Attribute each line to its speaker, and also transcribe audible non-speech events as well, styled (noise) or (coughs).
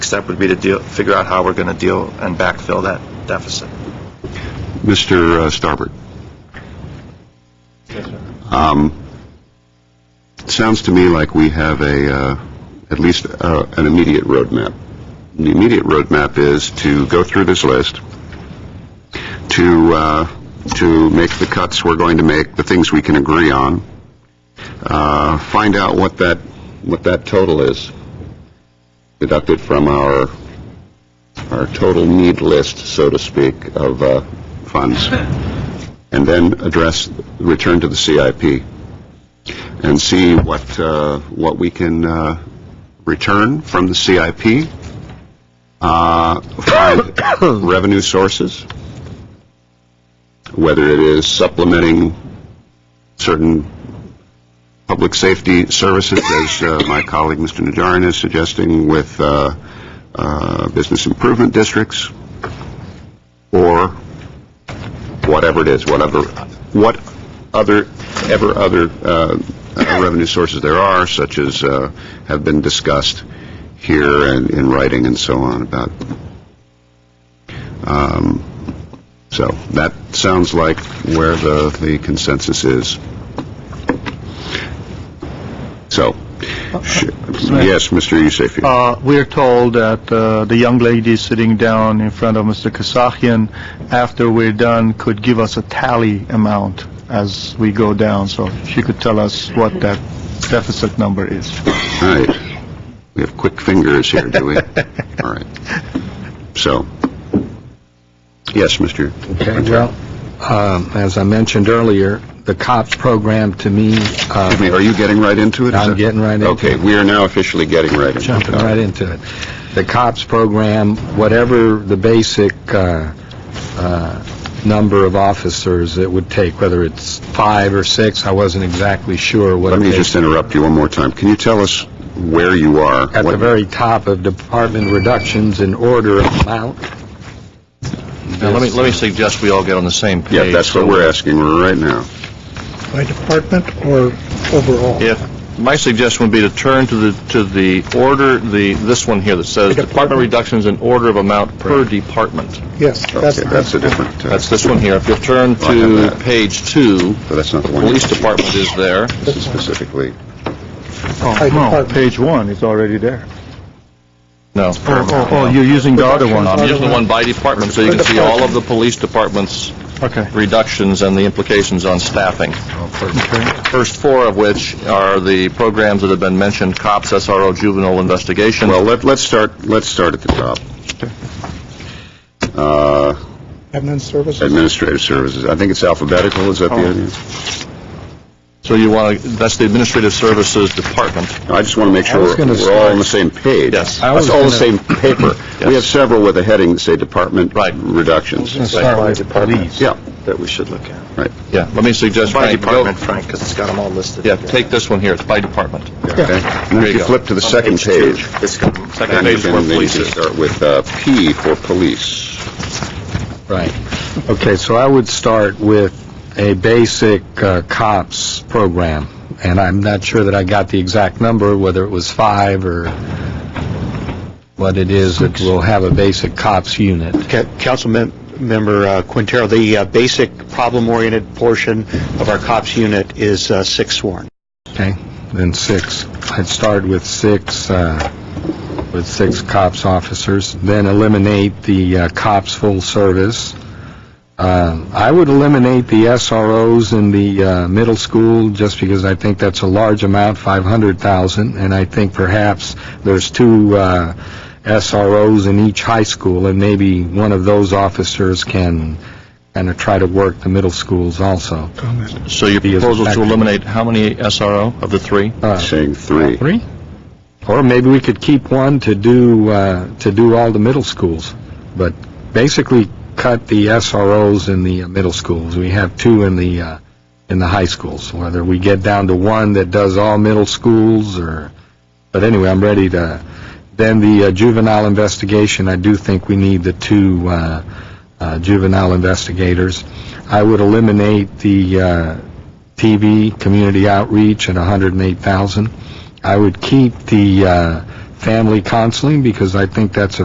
Speaker 1: step would be to deal, figure out how we're going to deal and backfill that deficit.
Speaker 2: Mr. Starbird? Um, It sounds to me like we have a, uh, at least uh, an immediate roadmap. The immediate roadmap is to go through this list, to, uh, to make the cuts we're going to make, the things we can agree on, uh, find out what that, what that total is, deducted from our, our total need list, so to speak, of uh, funds, and then address, return to the CIP and see what, uh, what we can uh, return from the CIP, uh, find revenue sources, whether it is supplementing certain public safety services, as uh, my colleague, Mr. Najarian, is suggesting, with uh, uh, business improvement districts, or whatever it is, whatever, what other, ever other uh, (coughs) uh, revenue sources there are, such as uh, have been discussed here and in writing and so on about. Um, So that sounds like where the the consensus is. So, sh- yes, Mr. Yusefian.
Speaker 3: Uh, We're told that uh, the young lady sitting down in front of Mr. Kasakian, after we're done, could give us a tally amount as we go down, so she could tell us what that deficit number is.
Speaker 2: All right. We have quick fingers here, do
Speaker 4: (laughs)
Speaker 2: we? All right. So, yes, Mr.
Speaker 4: Okay, well, um, as I mentioned earlier, the COPS program to me, uh,
Speaker 2: Excuse me, are you getting right into it? Is
Speaker 4: I'm
Speaker 2: that-
Speaker 4: getting right into it.
Speaker 2: Okay, we are now officially getting right into it.
Speaker 4: jumping right into it, the COPS program, whatever the basic uh, uh, number of officers it would take, whether it's five or six, I wasn't exactly sure what it
Speaker 2: Let me
Speaker 4: takes.
Speaker 2: just interrupt you one more time. Can you tell us where you are?
Speaker 4: At the
Speaker 2: What-
Speaker 4: very top of department reductions in order of amount.
Speaker 5: Now, let me, let me suggest we all get on the same page.
Speaker 2: Yeah, that's what
Speaker 5: So
Speaker 2: we're asking right now.
Speaker 6: By department or overall?
Speaker 5: If, my suggestion would be to turn to the, to the order, the, this one here that says department reductions in order of amount per department.
Speaker 6: Yes, that's,
Speaker 2: Okay, that's a different, uh,
Speaker 5: That's this one here. If you'll turn
Speaker 2: I have
Speaker 5: to
Speaker 2: that.
Speaker 5: page two,
Speaker 2: but that's not the one.
Speaker 5: police department is there.
Speaker 2: This is specifically,
Speaker 3: Oh, no, page one is already there.
Speaker 5: No.
Speaker 3: Oh, oh, oh, you're using the other one.
Speaker 5: I'm using the one by department, so you can see all of the police department's
Speaker 3: Okay.
Speaker 5: reductions and the implications on staffing. First four of which are the programs that have been mentioned, COPS, SRO, juvenile investigation.
Speaker 2: well, let- let's start, let's start at the top. Uh,
Speaker 6: admin services.
Speaker 2: Administrative services. I think it's alphabetical, is that
Speaker 4: Oh.
Speaker 2: the idea?
Speaker 5: So you want to, that's the Administrative Services Department.
Speaker 2: I just want to make sure
Speaker 4: I was
Speaker 2: we're
Speaker 4: gonna
Speaker 2: we're all on
Speaker 4: start-
Speaker 2: the same page.
Speaker 5: Yes.
Speaker 4: I
Speaker 2: That's
Speaker 4: was
Speaker 2: all the
Speaker 5: (clears throat)
Speaker 2: same
Speaker 4: gonna-
Speaker 2: paper. We have
Speaker 5: Yes.
Speaker 2: several with a heading that say department
Speaker 5: Right.
Speaker 2: reductions.
Speaker 3: Start by police.
Speaker 2: Yeah,
Speaker 1: That we should look at.
Speaker 2: right.
Speaker 5: Yeah, let me suggest,
Speaker 1: By
Speaker 5: Frank, go,
Speaker 1: department, Frank, because it's got them all listed.
Speaker 5: yeah, take this one here, it's by department.
Speaker 2: Okay. And
Speaker 5: There
Speaker 2: if
Speaker 5: you
Speaker 2: you
Speaker 5: go.
Speaker 2: flip to the second page,
Speaker 1: It's got 'em.
Speaker 5: Second
Speaker 2: then you
Speaker 5: page is
Speaker 2: can
Speaker 5: where
Speaker 2: then you
Speaker 5: police
Speaker 2: can
Speaker 5: is.
Speaker 2: start with uh, P for police.
Speaker 4: Right. Okay, so I would start with a basic uh, COPS program, and I'm not sure that I got the exact number, whether it was five or what it is that will have a basic COPS unit.
Speaker 7: Ca- Councilmember uh, Quintero, the uh, basic problem-oriented portion of our COPS unit is uh, six sworn.
Speaker 4: Okay, then six. I'd start with six, uh, with six cops officers, then eliminate the uh, cops full service. Uh, I would eliminate the SROs in the uh, middle school, just because I think that's a large amount, 500,000, and I think perhaps there's two uh, SROs in each high school, and maybe one of those officers can kind of try to work the middle schools also.
Speaker 5: So your
Speaker 4: He is
Speaker 5: proposal to
Speaker 4: effective.
Speaker 5: eliminate how many SRO of the three?
Speaker 4: Uh,
Speaker 2: Saying three.
Speaker 4: Three? Or maybe we could keep one to do, uh, to do all the middle schools, but basically cut the SROs in the uh, middle schools. We have two in the, uh, in the high schools, whether we get down to one that does all middle schools or, but anyway, I'm ready to, then the uh, juvenile investigation, I do think we need the two uh, uh, juvenile investigators. I would eliminate the uh, TV, community outreach at 108,000. I would keep the uh, family counseling, because I think that's a